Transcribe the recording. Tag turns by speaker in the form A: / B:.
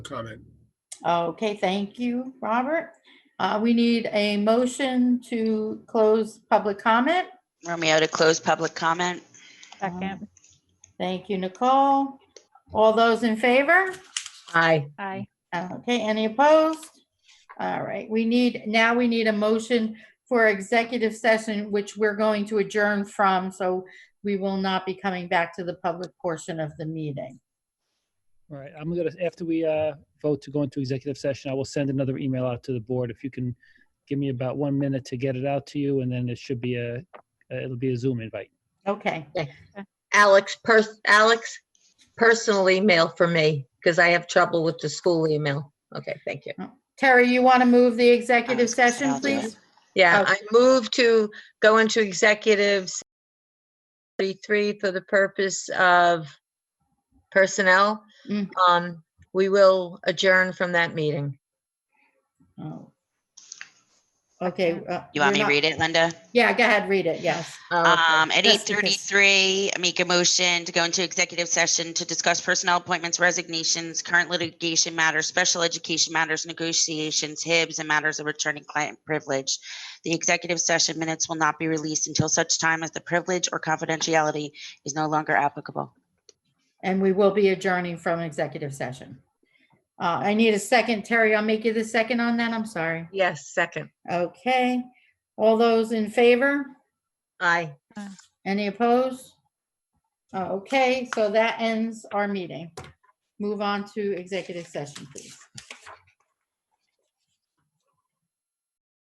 A: comment.
B: Okay, thank you, Robert. Uh, We need a motion to close public comment.
C: Romeo to close public comment.
D: Second,
B: Thank you, Nicole. All those in favor?
E: Aye.
D: aye.
B: Okay, any opposed? All right, we need, now we need a motion for executive session, which we're going to adjourn from, so we will not be coming back to the public portion of the meeting.
F: All right, I'm gonna, after we uh, vote to go into executive session, I will send another email out to the board. If you can give me about one minute to get it out to you, and then it should be a, uh, it'll be a Zoom invite.
B: Okay,
E: Alex, pers- Alex, personal email for me because I have trouble with the school email. Okay, thank you.
B: Terry, you want to move the
C: I
B: executive
C: was gonna say, I'll
B: session,
C: do it.
B: please?
E: Yeah,
B: Okay.
E: I move to go into executives 33 for the purpose of personnel.
B: Mm.
E: Um, we will adjourn from that meeting.
B: Oh. Okay. uh,
C: You
B: you're
C: want me to
B: not-
C: read it, Linda?
B: Yeah, go ahead, read it, yes.
E: Oh,
B: Uh,
E: okay.
C: Um, at eight
B: Yes, because-
C: thirty-three, make a motion to go into executive session to discuss personnel appointments, resignations, current litigation matters, special education matters, negotiations, HIBs, and matters of returning client privilege. The executive session minutes will not be released until such time as the privilege or confidentiality is no longer applicable.
B: And we will be adjourning from executive session. Uh, I need a second. Terry, I'll make you the second on that. I'm sorry.
E: Yes, second.
B: Okay. All those in favor?
E: Aye.
B: Any opposed? Uh, Okay, so that ends our meeting. Move on to executive session, please.